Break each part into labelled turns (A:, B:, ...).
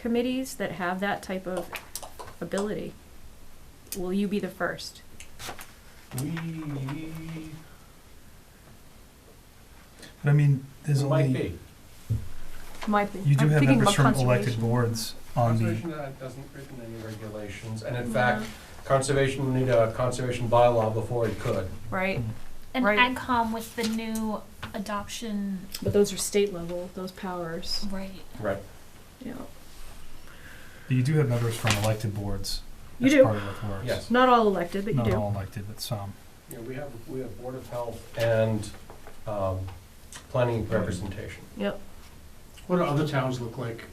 A: committees that have that type of ability. Will you be the first?
B: We,
C: But I mean, there's
B: it might
C: only,
B: be.
A: My,
C: you do
A: I'm
C: have
A: thinking
C: members
A: about
C: from elected
A: conservation.
C: boards on the,
B: Conservation uh, doesn't written any regulations, and in fact, conservation would need a conservation bylaw before it could.
A: Right,
D: And
A: Right.
D: AgCom with the new adoption,
A: but those are state level, those powers,
D: right?
B: Right.
A: you know.
C: but you do have members from elected boards
A: You
C: as
A: do.
C: part of what works.
B: Yes.
A: Not all elected, but you
C: Not
A: do.
C: all elected, but some.
B: Yeah, we have, we have Board of Health and, um, planning representation.
A: Yep.
E: What do other towns look like?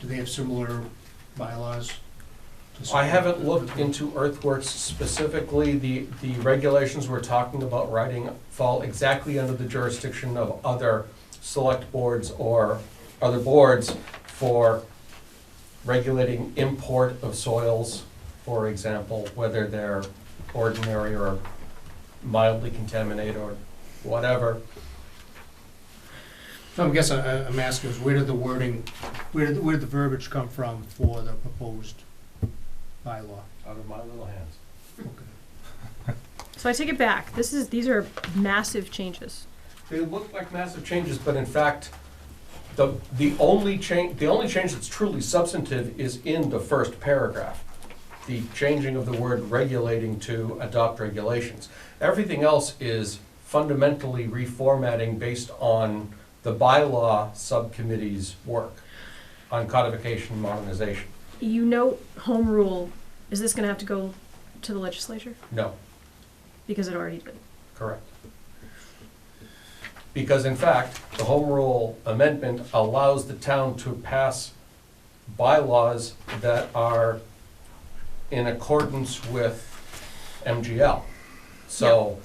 E: Do they have similar bylaws?
B: I haven't looked into earthworks specifically, the, the regulations we're talking about writing fall exactly under the jurisdiction of other select boards or other boards for regulating import of soils, for example, whether they're ordinary or mildly contaminated or whatever.
E: So I'm guessing, I- I'm asking is where did the wording, where did, where did the verbiage come from for the proposed bylaw?
B: Out of my little hands.
A: So I take it back. This is, these are massive changes.
B: They look like massive changes, but in fact, the, the only change, the only change that's truly substantive is in the first paragraph. The changing of the word regulating to adopt regulations. Everything else is fundamentally reformatting based on the bylaw subcommittee's work on codification and modernization.
A: You know, home rule, is this gonna have to go to the legislature?
B: No,
A: Because it already did.
B: correct. Because in fact, the home rule amendment allows the town to pass bylaws that are in accordance with MGL. So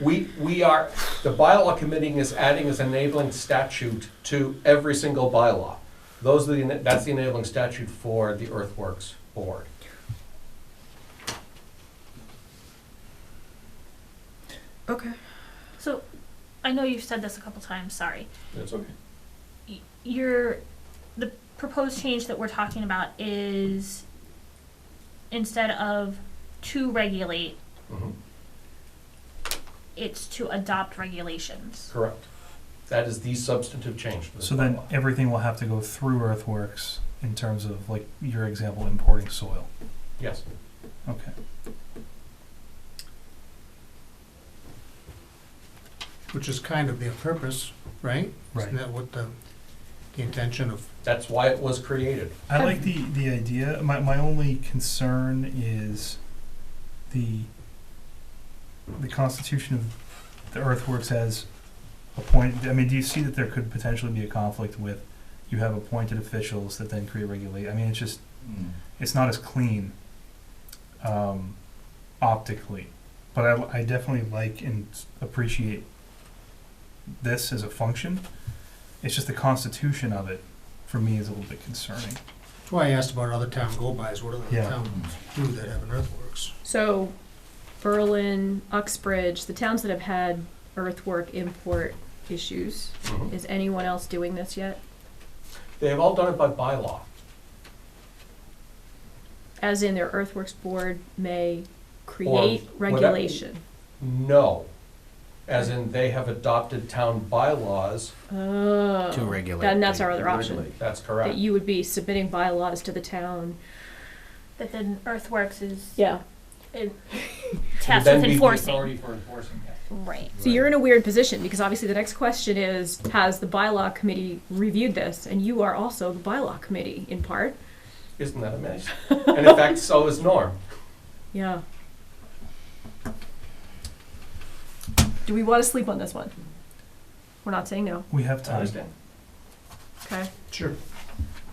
B: we, we are, the bylaw committee is adding this enabling statute to every single bylaw. Those are the, that's the enabling statute for the earthworks board.
A: Okay.
D: So, I know you've said this a couple times, sorry.
B: That's okay.
D: Y- Your, the proposed change that we're talking about is instead of to regulate, it's to adopt regulations.
B: Correct. That is the substantive change to this
C: So then
B: bylaw.
C: everything will have to go through earthworks in terms of like your example, importing soil.
B: Yes.
C: Okay.
E: Which is kind of their purpose, right?
C: Right.
E: Isn't that what the, the intention of?
B: That's why it was created.
C: I like the, the idea. My, my only concern is the the constitution of the earthworks as appointed. I mean, do you see that there could potentially be a conflict with you have appointed officials that then create regulate? I mean, it's just it's not as clean um, optically, but I, I definitely like and appreciate this as a function. It's just the constitution of it for me is a little bit concerning.
E: That's why I asked about other town go-bys, what do other
C: Yeah.
E: towns do that have an earthworks?
A: So Berlin, Uxbridge, the towns that have had earthwork import issues,
C: Mm-hmm.
A: is anyone else doing this yet?
B: They have all done it by bylaw.
A: As in their earthworks board may
B: Or
A: create
B: whatever-
A: regulation.
B: No. As in, they have adopted town bylaws.
A: Oh.
F: To regulate.
A: Then that's
F: the-
A: our other option,
F: regulate.
B: That's
A: that
B: correct.
A: you would be submitting bylaws to the town.
D: That then Earthworks is
A: Yeah.
D: tasked
B: Then
D: with
B: be the
D: enforcing.
B: authority for enforcing that.
D: Right.
A: So you're in a weird position because obviously the next question is Has the bylaw committee reviewed this? And you are also the bylaw committee in part.
B: Isn't that amazing? And in fact, so is Norm.
A: Yeah. Do we want to sleep on this one? We're not saying no.
C: We have
B: I
C: time.
B: understand.
A: Okay.
E: Sure.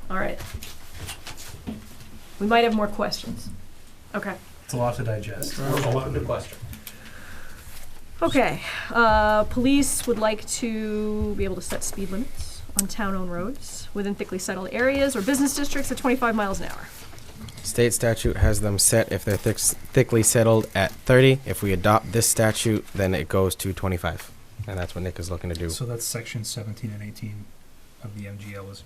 A: All right. We might have more questions. Okay.
C: It's a lot to digest.
B: We're open to question.
A: Okay. Uh, police would like to be able to set speed limits on town-owned roads within thickly settled areas or business districts at 25 miles an hour.
F: State statute has them set if they're thick, thickly settled at 30. If we adopt this statute, then it goes to 25. And that's what Nick is looking to do.
C: So that's section 17 and 18 of the MGL is